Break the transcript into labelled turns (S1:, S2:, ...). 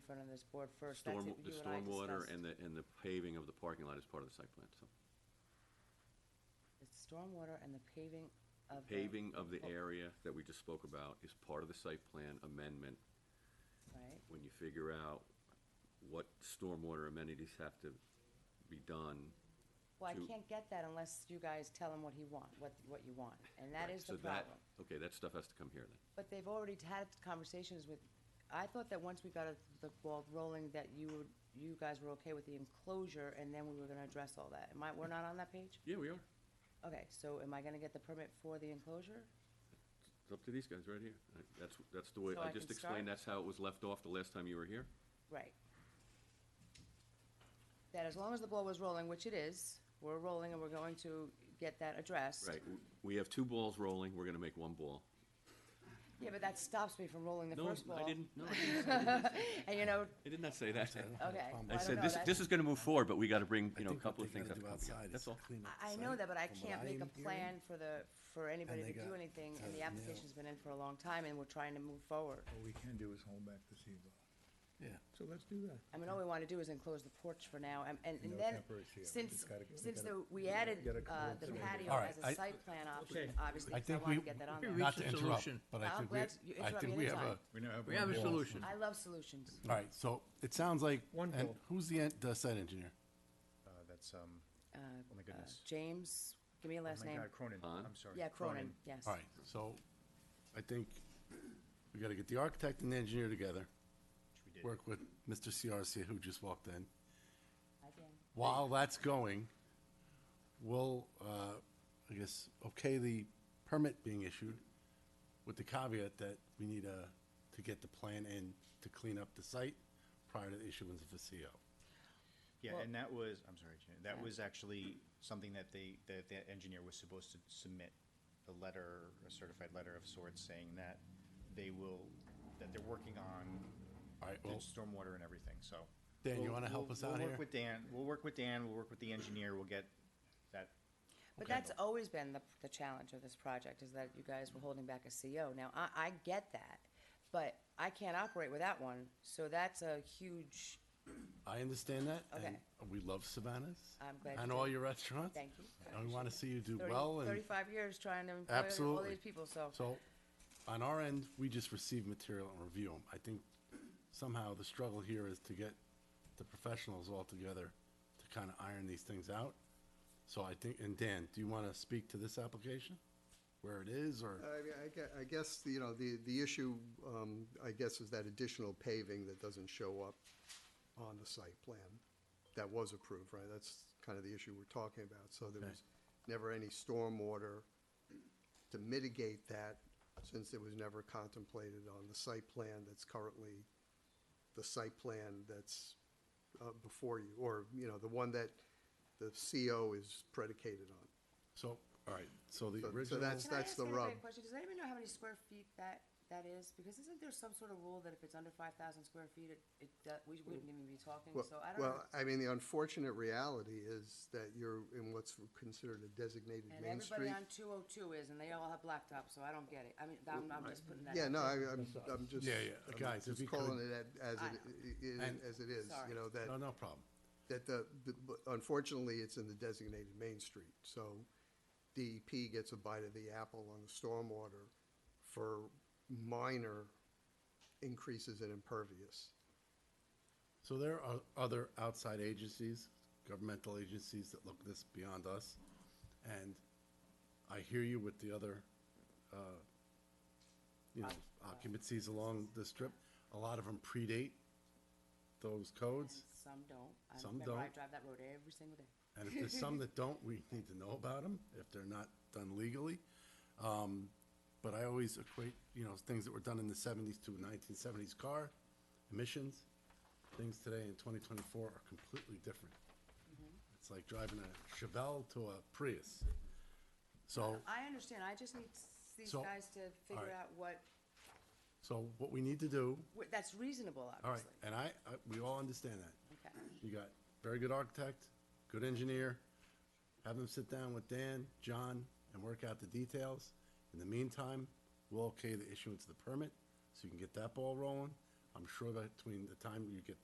S1: front of this board first. That's
S2: Storm,
S1: it,
S2: the
S1: you I
S2: stormwater
S1: discussed.
S2: and the, and the paving of the parking lot is part of the site plan, so.
S1: The stormwater and the paving of the.
S2: Paving of the
S1: Oh,
S2: area that we just spoke about is part of the site plan amendment.
S1: Right,
S2: When you figure out what stormwater amenities have to be done.
S1: well, I
S2: to-
S1: can't get that unless you guys tell him what he want, what, what you want, and that
S2: right,
S1: is the
S2: so that-
S1: problem.
S2: Okay, that stuff has to come here then.
S1: But they've already had conversations with, I thought that once we got it- the ball rolling, that you would, you guys were okay with the enclosure, and then we were gonna address all that. Am I, we're not on that page?
S2: Yeah, we are.
S1: Okay, so am I gonna get the permit for the enclosure?
S2: It's up to these guys right here. I- That's, that's the way,
S1: So
S2: I
S1: I
S2: just
S1: can start?
S2: explained, that's how it was left off the last time you were here.
S1: Right. That as long as the ball was rolling, which it is, we're rolling and we're going to get that addressed.
S2: Right, w- we have two balls rolling, we're gonna make one ball.
S1: Yeah, but that stops me from rolling the
S2: No,
S1: first ball.
S2: I didn't, no, I didn't say-
S1: And you know,
S2: I did not say that.
S1: okay, well,
S2: I
S1: I don't
S2: said,
S1: know,
S2: this, this
S1: that's,
S2: is gonna move forward, but we gotta bring, you know, a
S3: think what
S2: couple of
S3: they
S2: things
S3: gotta
S2: that
S3: do
S2: come together,
S3: outside is
S2: that's all.
S3: clean up
S1: I- I
S3: the
S1: know
S3: site,
S1: that, but I
S3: from what
S1: can't make
S3: am
S1: a plan
S3: hearing.
S1: for the, for anybody
S3: they
S1: to do
S3: got
S1: anything,
S3: to
S1: and the
S3: nail.
S1: application's been in for a long time, and we're trying to move forward.
S4: What we can do is hold back the CBO.
S3: Yeah.
S4: So let's do that.
S1: I mean, all we wanna do is enclose the porch for now, and, and
S4: know,
S1: and then,
S4: temporary CO,
S1: since,
S4: it's gotta- we
S1: since
S4: gotta-
S1: the, we added,
S4: gotta
S1: uh,
S4: convert
S1: the
S4: it.
S1: patio
S3: All right,
S1: as
S3: I-
S1: a site plan option, obviously,
S3: I
S1: 'cause I
S3: think
S1: wanna
S3: we-
S1: get that on
S5: we
S1: there.
S5: reached
S3: Not to
S5: a
S3: interrupt,
S5: solution.
S3: but
S1: Wow,
S3: I think we,
S1: glad you
S3: I
S1: interrupt
S3: think
S1: me
S3: we have a,
S1: anytime.
S4: We now have.
S5: We
S4: one
S5: have a
S4: wall.
S5: solution.
S1: I love solutions.
S3: all right, so it sounds like,
S4: One
S3: and
S4: vote.
S3: who's the, en- the site engineer?
S6: Uh, That's, um,
S1: Uh,
S6: oh my
S1: uh,
S6: goodness.
S1: James, give me a
S6: Oh
S1: last
S6: my
S1: name.
S6: God, Cronin,
S2: Hahn?
S6: I'm sorry.
S1: Yeah, Cronin, yes.
S3: All right, so I think we gotta get the architect and the engineer together,
S6: Which we did.
S3: work with Mr. CRC who just walked in.
S1: Hi, Dan.
S3: While that's going, we'll, uh, I guess, okay the permit being issued with the caveat that we need uh to get the plan in to clean up the site prior to the issuance of the CO.
S6: Yeah, and that was, I'm sorry, Jan- that was actually something that they, that the engineer was supposed to submit a letter, a certified letter of sorts saying that they will, that they're working on
S3: All right,
S6: the
S3: well,
S6: stormwater and everything, so.
S3: Dan, you
S6: we'll-
S3: wanna help
S6: we'll-
S3: us out
S6: We'll
S3: here?
S6: work with Dan, we'll work with Dan, we'll work with the engineer, we'll get that.
S1: But
S6: Okay.
S1: that's always been the, the challenge of this project, is that you guys were holding back a CO. Now, I, I get that, but I can't operate without one, so that's a huge,
S3: I understand that. and We love Savannah's.
S1: I'm glad you
S3: And
S1: do.
S3: all your restaurants.
S1: Thank you. I
S3: And we wanna see you do
S1: 30
S3: well and,
S1: Thirty-five years trying to employ all
S3: Absolutely.
S1: these people, so.
S3: so, on our end, we just receive material and review them. I think somehow the struggle here is to get the professionals all together to kinda iron these things out. So I think, and Dan, do you wanna speak to this application? Where it is, or?
S7: I mean, I gue- I guess, you know, the, the issue, um, I guess, is that additional paving that doesn't show up on the site plan that was approved, right? That's kind of the issue we're talking about. So there was never any stormwater to mitigate that, since it was never contemplated on the site plan that's currently, the site plan that's uh, before you, or, you know, the one that the CO is predicated on.
S3: So, all right, so the
S7: So- so
S3: original.
S7: that's-
S1: Can I ask
S7: the
S1: anybody a
S7: rub.
S1: question? Does anybody know how many square feet that, that is? Because isn't there some sort of rule that if it's under five thousand square feet, it, it, do- we wouldn't even be talking,
S7: Well-
S1: so I don't know.
S7: Well, I mean, the unfortunate reality is that you're in what's considered a designated
S1: And
S7: main
S1: everybody
S7: street.
S1: on two oh two is, and they all have blacktop, so I don't get it. I mean, I'm, I'm just putting that out
S7: Yeah, no, I,
S1: there.
S7: I'm, I'm just.
S3: Yeah, yeah,
S7: I'm
S3: guys, if
S7: just
S3: you could-
S7: calling it a- as
S1: I
S7: it, i- i-
S3: And-
S7: as it is,
S1: Sorry.
S7: you know, that,
S3: No, no problem.
S7: that the, the- but unfortunately, it's in the designated main street. So DEP gets a bite of the apple on the stormwater for minor increases in impervious.
S3: So there are other outside agencies, governmental agencies that look this beyond us. And I hear you with the other, uh, you know, occupancies along the strip. A lot of them predate those codes.
S1: Some don't. I
S3: Some
S1: remember I
S3: don't.
S1: drive that road every single day.
S3: And if there's some that don't, we need to know about them if they're not done legally. Um, but I always equate, you know, things that were done in the seventies to nineteen seventies car emissions. Things today in twenty twenty-four are completely different. It's like driving a Chevelle to a Prius. So,
S1: I understand. I just need s- these
S3: So-
S1: guys to figure
S3: alright.
S1: out what,
S3: so what we need to do,
S1: what- that's reasonable,
S3: all right,
S1: obviously.
S3: and I, I, we all understand that.
S1: Okay.
S3: You got very good architect, good engineer. Have them sit down with Dan, John, and work out the details. In the meantime, we'll okay the issuance of the permit, so you can get that ball rolling. I'm sure that between the time you get